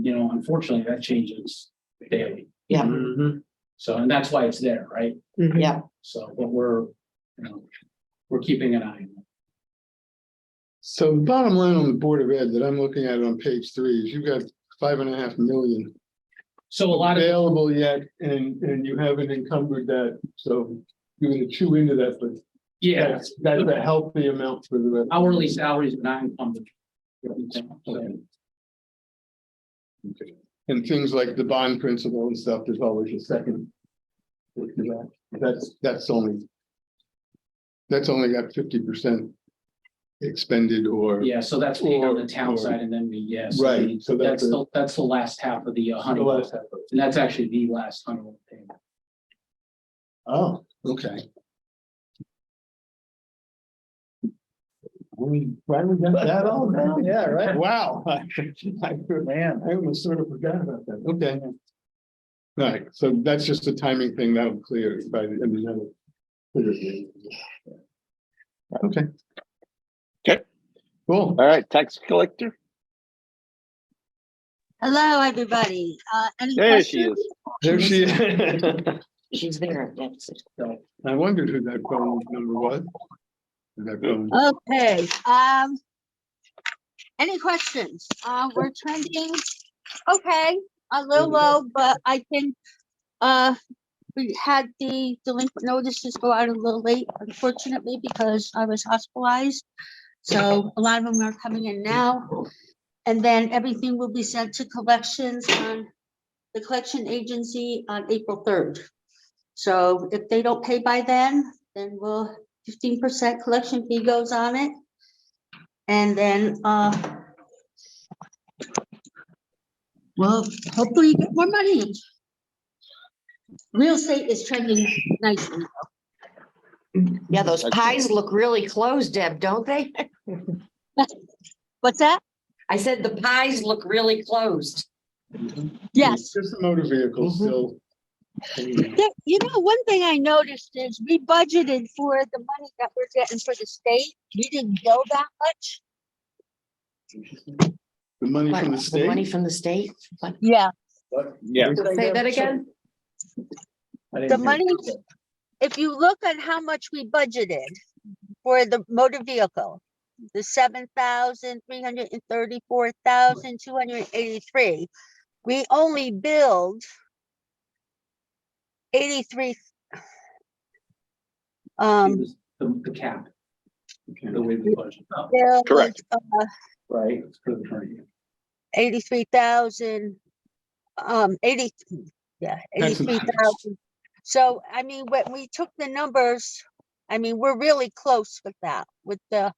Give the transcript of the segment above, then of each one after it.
you know, unfortunately, that changes daily. Yeah. Mm-hmm. So, and that's why it's there, right? Yeah. So, but we're, you know, we're keeping an eye on it. So the bottom line on the Board of Ed that I'm looking at on page three is you've got five and a half million So a lot of, available yet, and, and you haven't encumbered that, so you're gonna chew into that, but yeah, that's, that's a healthy amount for the rest. hourly salaries are not encumbered. So, Okay. And things like the bond principle and stuff, there's always a second. look to that. That's, that's only. That's only got fifty percent expended or. Yeah, so that's paid on Or- the town or- side and then we, yes. Right, so That's that's a- the, that's the last half of the uh, The Honeywell, last and that's actually the last Honeywell payment. Oh, okay. We, why we got that all now? Yeah, right. Wow. Man, I almost sort of forgot about that. Okay. All right, so that's just a timing thing that'll clear by the, I mean, that'll. clear at the end of the year. Okay. Okay. Cool. All right, tax collector. Hello, everybody. Uh, any There she questions? is. There she is. She's there, that's it. I wondered who that phone number was. That phone- Uh, Okay, um. Any questions? Uh, we're trending, okay, a little low, but I think, uh, we had the delinquent notices go out a little late unfortunately because I was hospitalized. So a lot of them are coming in now. And then everything will be sent to collections on the collection agency on April third. So if they don't pay by then, then we'll fifteen percent collection fee goes on it. And then, uh, well, hopefully you get more money. Real estate is trending nicely. Yeah, those That's- pies look really close, Deb, don't they? What's that? I said the pies look really closed. Yes. Just the motor vehicle Mhm. still. There- You know, one thing I noticed is we budgeted for the money that we're getting for the state. We didn't go that much. The money What, from the the Money state? from the state? What? Yeah. Yeah, Say that again? The money, if you look at how much we budgeted for the motor vehicle, the seven thousand, three hundred and thirty-four thousand, two hundred and eighty-three, we only billed eighty-three. It Um, was The, the cap, Okay. the way the budget, oh, billed, Correct. uh, right, for the current year. eighty-three thousand, um, eighty, yeah, That's eighty-three nice. thousand. So, I mean, when we took the numbers, I mean, we're really close with that, with the,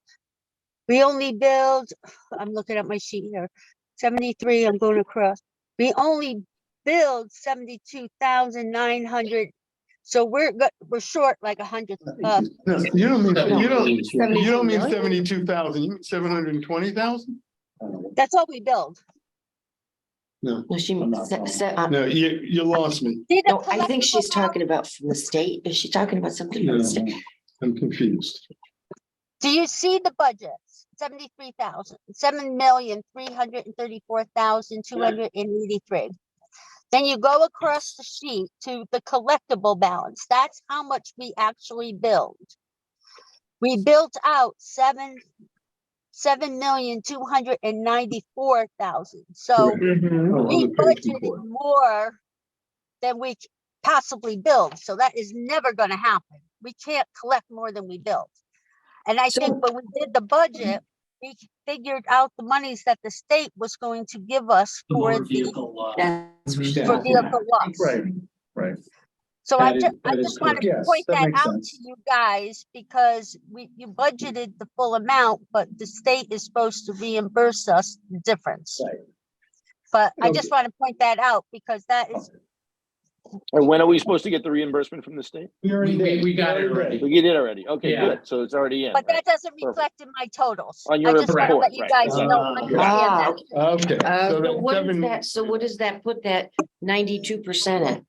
we only billed, I'm looking at my sheet here, seventy-three, I'm going across. We only billed seventy-two thousand nine hundred, so we're, go- we're short like a hundred, uh, No, you don't mean, you don't, you don't mean 72 million? seventy-two thousand, you mean seven hundred and twenty thousand? that's all we billed. No, she, I'm not se- se- uh, No, you, you lost me. Did a no, I think collectible she's amount- talking about from the state. Is she talking about something from the No, state? I'm confused. Do you see the budgets? Seventy-three thousand, seven million, three hundred and thirty-four thousand, two hundred and eighty-three. Then you go across the sheet to the collectible balance. That's how much we actually build. We built out seven, seven million, two hundred and ninety-four thousand. So Correct. Mm-hmm. Oh, we on the page budgeted before. more than we c- possibly build, so that is never gonna happen. We can't collect more than we built. And I So- think when we did the budget, we figured out the monies that the state was going to give us The for motor the, vehicle, uh, That's what she- for Yeah. vehicle loss. right. So I That just, is- I that is just wanted correct. to Yes, point that that makes out to sense. you guys, because we, you budgeted the full amount, but the state is supposed to reimburse us the difference. Right. But I Okay. just want to point that out, because that is and when are we supposed to get the reimbursement from the state? We, we- we got it already. We did already. Okay, Yeah. good. So it's already in. But right? that doesn't Perfect. reflect in my totals. On your I just wanna report, let you right. guys know, Ah, understand Ah, that. okay. Okay. Uh, so so that what is seven- that, so what does that put that ninety-two percent at?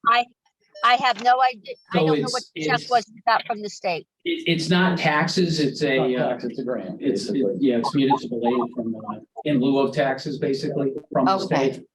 I have no idea. I So don't know what it's- the check it's- was we got from the state. It, it's not taxes, it's a, uh, It's a grant. it's, it- yeah, it's municipal aid from, uh, in lieu of taxes, basically, from the Okay. state.